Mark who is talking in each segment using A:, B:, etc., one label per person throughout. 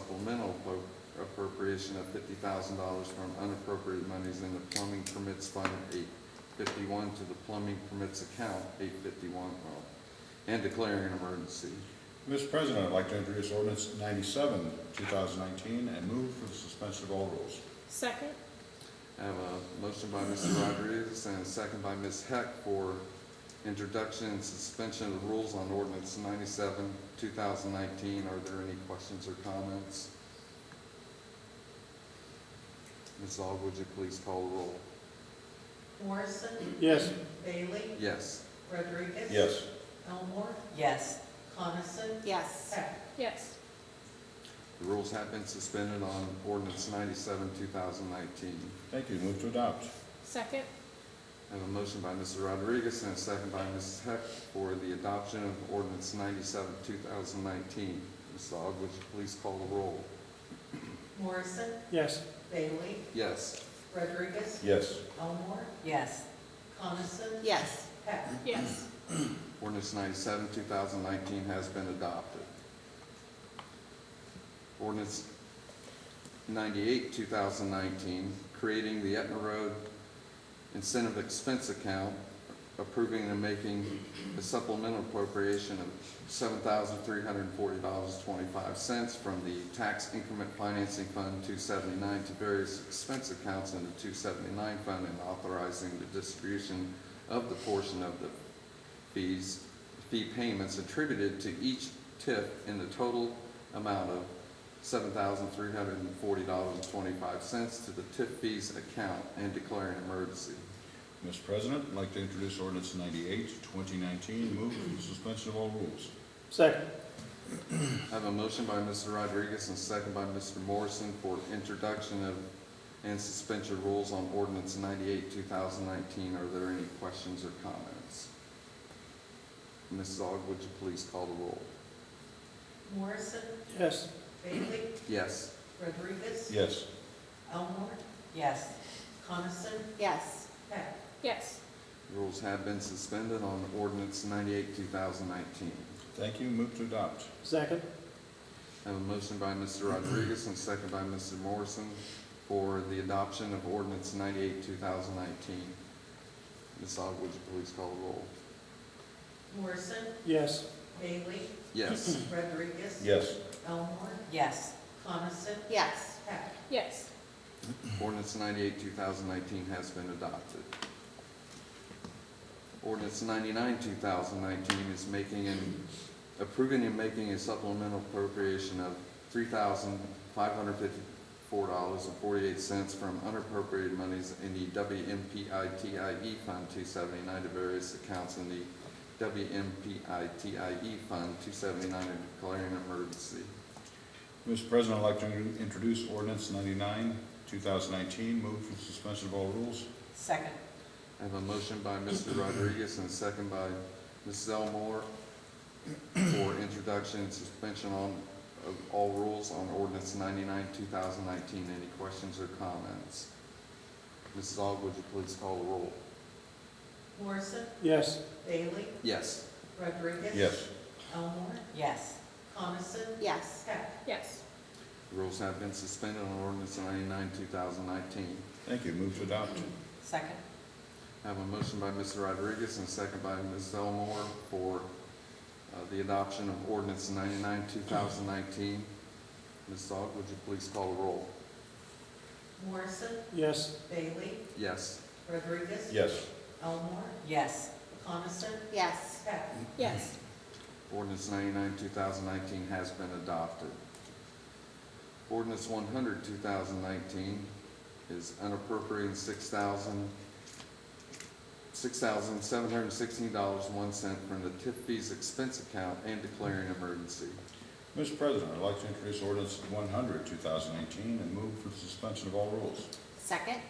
A: supplemental appro- appropriation of fifty thousand dollars from unappropriated monies in the plumbing permits fund eight fifty-one to the plumbing permits account eight fifty-one, and declaring an emergency.
B: Mr. President, I'd like to introduce ordinance ninety-seven, two thousand nineteen, and move for the suspension of all rules.
C: Second?
A: I have a motion by Mr. Rodriguez and a second by Ms. Heck for introduction and suspension of rules on ordinance ninety-seven, two thousand nineteen. Are there any questions or comments? Ms. Aug, would you please call the roll?
D: Morrison,
E: yes,
D: Bailey,
A: Yes.
D: Rodriguez.
B: Yes.
D: Elmore,
F: yes,
D: Coniston,
C: Yes.
D: Heck.
C: Yes.
A: The rules have been suspended on ordinance ninety-seven, two thousand nineteen.
B: Thank you. Move to adopt.
C: Second?
A: I have a motion by Mr. Rodriguez and a second by Ms. Heck for the adoption of ordinance ninety-seven, two thousand nineteen. Ms. Aug, would you please call the roll?
D: Morrison,
E: yes,
D: Bailey,
A: Yes.
D: Rodriguez,
B: Yes.
D: Elmore,
F: yes,
D: Coniston,
C: Yes.
D: Heck.
C: Yes.
A: Ordinance 97, 2019 has been adopted. Ordinance 98, 2019, creating the Etna Road Incentive Expense Account, approving and making a supplemental appropriation of $7,340.25 from the Tax Increment Financing Fund 279 to various expense accounts in the 279 fund and authorizing the distribution of the portion of the fees, fee payments attributed to each tip in the total amount of seven thousand three hundred and forty dollars and twenty-five cents to the tip fees account and declaring an emergency.
B: Mr. President, I'd like to introduce ordinance ninety-eight, twenty nineteen, move for the suspension of all rules.
E: second,
A: I have a motion by Mr. Rodriguez and a second by Mr. Morrison for introduction of and suspension of rules on ordinance ninety-eight, two thousand nineteen. Are there any questions or comments? Mrs. Aug, would you please call the roll?
D: Morrison,
E: yes,
D: Bailey,
A: Yes.
D: Rodriguez.
B: Yes.
D: Elmore,
F: yes.
D: Coniston,
C: Yes.
D: Heck.
C: Yes.
A: Rules have been suspended on ordinance 98, 2019.
B: Thank you. Move to adopt.
E: second,
A: I have a motion by Mr. Rodriguez and a second by Mr. Morrison for the adoption of ordinance 98, 2019. Ms. Aug, would you please call the roll?
D: Morrison,
E: yes,
D: Bailey,
A: Yes.
D: Rodriguez.
B: Yes.
D: Elmore,
F: Yes,
D: Coniston,
C: Yes.
D: Heck.
C: Yes.
A: Ordinance 98, 2019 has been adopted. Ordinance 99, 2019 is making and approving and making a supplemental appropriation of $3,554.48 from unappropriated monies in the WMPITIE E Fund 279 to various accounts in the WMPITIE E Fund 279 and declaring an emergency.
B: Mr. President, I'd like to introduce ordinance ninety-nine, two thousand nineteen, move for the suspension of all rules.
F: second,
A: I have a motion by Mr. Rodriguez and a second by Mrs. Elmore for introduction and suspension on, of all rules on ordinance ninety-nine, two thousand nineteen. Any questions or comments? Mrs. Aug, would you please call the roll?
D: Morrison,
E: yes,
D: Bailey,
A: Yes.
D: Rodriguez.
B: Yes.
D: Elmore,
F: yes,
D: Coniston,
C: Yes.
D: Heck.
C: Yes.
A: The Rules have been suspended on ordinance ninety-nine, two thousand nineteen.
B: Thank you. Move to adopt.
F: second,
A: I have a motion by Mr. Rodriguez and a second by Mrs. Elmore for uh, the adoption of ordinance ninety-nine, two thousand nineteen. Mrs. Aug, would you please call the roll?
D: Morrison,
E: yes,
D: Bailey,
A: Yes.
D: Rodriguez.
B: Yes.
D: Elmore,
F: yes,
D: Coniston,
C: Yes.
D: Heck.
C: Yes.
A: Ordinance 99, 2019 has been adopted. Ordinance 100, 2019 is unappropriating $6,000 $6,716.01 from the tip fees expense account and declaring an emergency.
B: Mr. President, I'd like to introduce ordinance 100, 2019, and move for the suspension of all rules.
C: Second?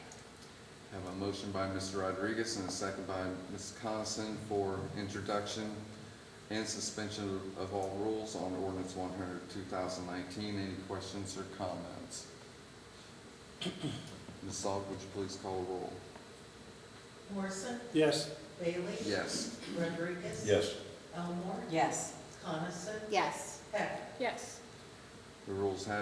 A: Have a motion by Mr. Rodriguez and a second by Ms. Coniston for introduction and suspension of all rules on ordinance 100, 2019. Any questions or comments? Ms. Aug, would you please call the roll?
D: Morrison,
E: yes,
D: Bailey.
A: Yes.
D: Rodriguez.
B: Yes.
D: Elmore,
F: yes.
D: Coniston,
C: Yes.
D: Heck.
C: Yes.
A: The rules have